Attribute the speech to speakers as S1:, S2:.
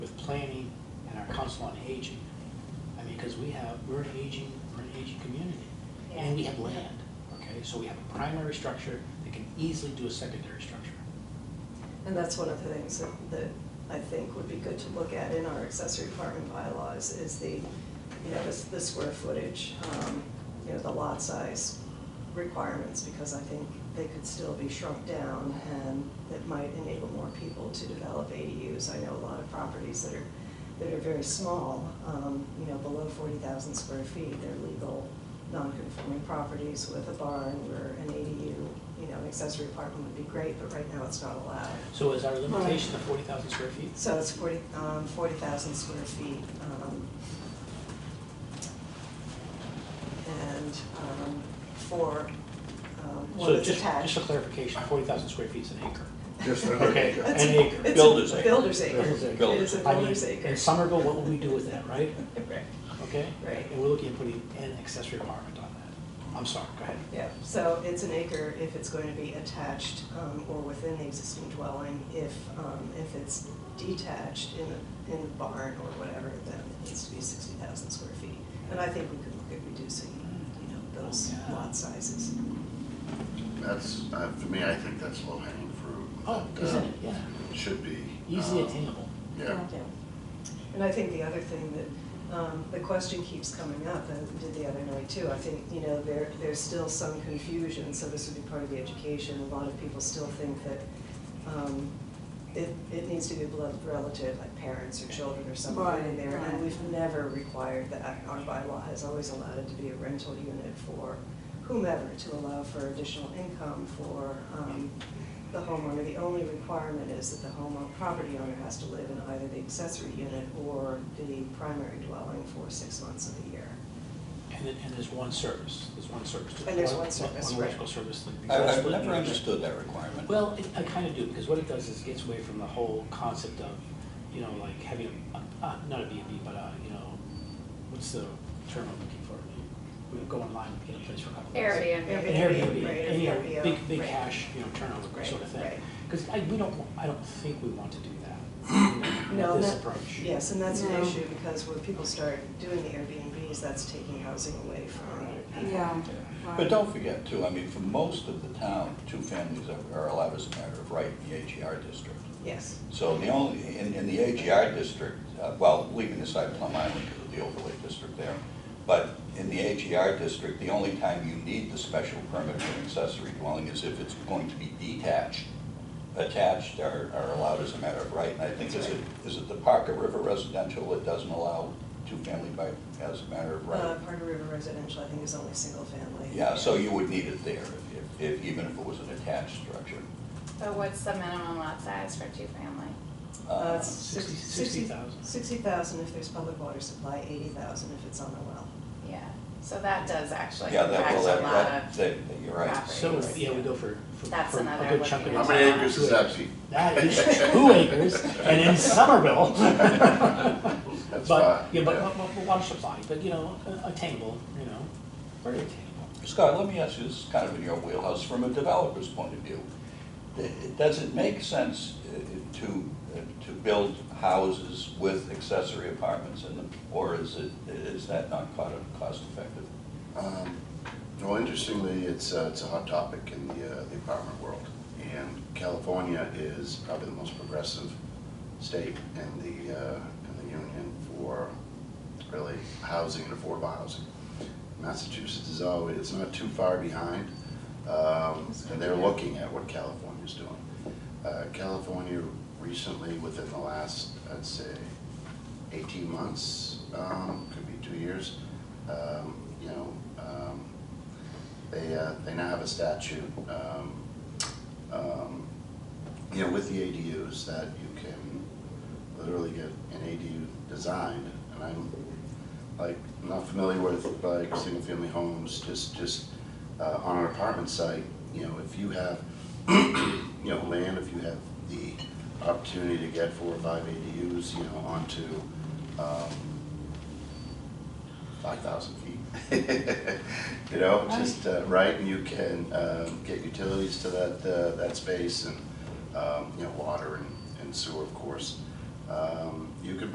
S1: Council on Aging. I mean, because we have, we're an aging, we're an aging community, and we have land, okay? So we have a primary structure that can easily do a secondary structure.
S2: And that's one of the things that- that I think would be good to look at in our accessory apartment bylaws is the, you know, the, the square footage, um, you know, the lot size requirements, because I think they could still be shrunk down and that might enable more people to develop ADUs. I know a lot of properties that are, that are very small, um, you know, below forty thousand square feet, they're legal, non-conforming properties with a barn where an ADU, you know, an accessory apartment would be great, but right now it's not allowed.
S1: So is our limitation of forty thousand square feet?
S2: So it's forty, um, forty thousand square feet, um, and, um, for, um, one
S1: So
S2: that's
S1: just, just
S2: attached.
S1: for clarification, forty thousand square feet is an acre.
S3: Just an
S1: Okay.
S3: acre.
S2: It's-
S1: an acre.
S2: it's a
S4: Builder's acre.
S2: Builder's acre.
S1: Builder's acre.
S2: It is a
S1: I mean,
S2: builder's acre.
S1: In Somerville, what would we do with that, right?
S2: Right.
S1: Okay?
S2: Right.
S1: And we're looking at putting an accessory apartment on that. I'm sorry, go ahead.
S2: Yeah, so it's an acre if it's going to be attached um, or within the existing dwelling. If, um, if it's detached in, a- in a barn or whatever, then it needs to be sixty thousand square feet. And I think we could look at reducing, you know, those
S1: Yeah.
S2: lot sizes.
S3: That's, uh, for me, I think that's low hanging fruit.
S1: Oh,
S3: and, uh,
S1: isn't it, yeah,
S3: Should be.
S1: easily
S3: uh,
S1: attainable.
S3: Yeah,
S2: And I think the other thing that, um, the question keeps coming up, and we did the other night too, I think, you know, there, there's still some confusion, so this would be part of the education. A lot of people still think that, um, it, it needs to be a blood relative, like parents or children or somebody in
S5: Right,
S2: there. And
S5: right.
S2: we've never required that, our bylaw has always allowed it to be a rental unit for whomever, to allow for additional income for, um, the homeowner, the only requirement is that the homeowner, property owner has to live in either the accessory unit or the primary dwelling for six months of the year.
S1: And then, and there's one service, there's one service. to-
S2: And there's one service,
S1: One
S2: right.
S1: electrical service. like the-
S4: I- I've never understood that requirement.
S1: Well, it- I kind of do, because what it does is gets away from the whole concept of, you know, like having, a- a- not a B and B, but a, you know, what's the term I'm looking for? We go online and get a place for a couple of days.
S2: Airbnb.
S5: Airbnb.
S1: An Airbnb,
S2: Right,
S1: and, you know,
S2: Airbnb,
S1: big, big
S2: right.
S1: cash, you know, turnover
S2: Right,
S1: sort of
S2: right.
S1: thing. Because I, we don't, I don't think we want to do that, you know,
S2: No,
S1: with this
S2: that-
S1: approach.
S2: Yes, and that's an
S5: No.
S2: issue, because when people start doing the Airbnbs, that's taking housing away from people.
S5: Yeah.
S4: But don't forget too, I mean, for most of the town, two families are- are allowed as a matter of right in the AGR district.
S2: Yes,
S4: So the only, in, in the AGR district, uh, well, leaving aside Plum Island because of the overlay district there, but in the AGR district, the only time you need the special permit for an accessory dwelling is if it's going to be detached. Attached are, are allowed as a matter of right, and I think is it, is it the Parker River residential that doesn't allow two-family by, as a matter of
S2: uh,
S4: right?
S2: Parker River Residential, I think, is only single family.
S4: Yeah, so you would need it there, if- if, if, even if it was an attached structure.
S6: So what's the minimum lot size for two-family?
S2: Uh,
S4: Uh,
S2: it's sixty-
S1: Sixty- 60,000.
S2: Sixty thousand if there's public water supply, eighty thousand if it's on a well.
S6: Yeah, so that does actually
S4: Yeah, that,
S6: impact
S4: well,
S6: a
S4: that,
S6: lot
S4: that,
S6: of,
S4: that- you're right.
S1: So, yeah, we go for, for
S6: That's
S1: for a
S6: another
S1: good chunk of
S6: looking
S1: it.
S3: how many acres is that, Pete?
S1: That is two acres, and in Somerville.
S3: That's
S1: But,
S3: fine,
S1: yeah, but,
S3: yeah.
S1: but, but water supply, but, you know, a- attainable, you know, very attainable.
S4: Scott, let me ask you, this is kind of in your wheelhouse, from a developer's point of view. th- Does it make sense uh, to, uh, to build houses with accessory apartments in them? Or is it, is that not cost, cost effective?
S3: Um, Well, interestingly, it's, uh, it's a hot topic in the, uh, the apartment world. And California is probably the most progressive state in the, uh, in the union for really housing and affordable housing. Massachusetts is always, it's not too far behind, um, and they're looking at what California's doing. Uh, California recently, within the last, I'd say, 18 months, um, could be two years. Um, You know, um, they, uh, they now have a statute, um, um, you know, with the ADUs that you can literally get an ADU designed. And I'm like, not familiar with like single-family homes, just, just uh, on an apartment site, you know, if you have, you know, land, if you have the opportunity to get four or five ADUs, you know, onto, um, five thousand feet. You know, just, uh, right, and you can, um, get utilities to that, uh, that space and, um, you know, water and, and sewer, of course. Um, you could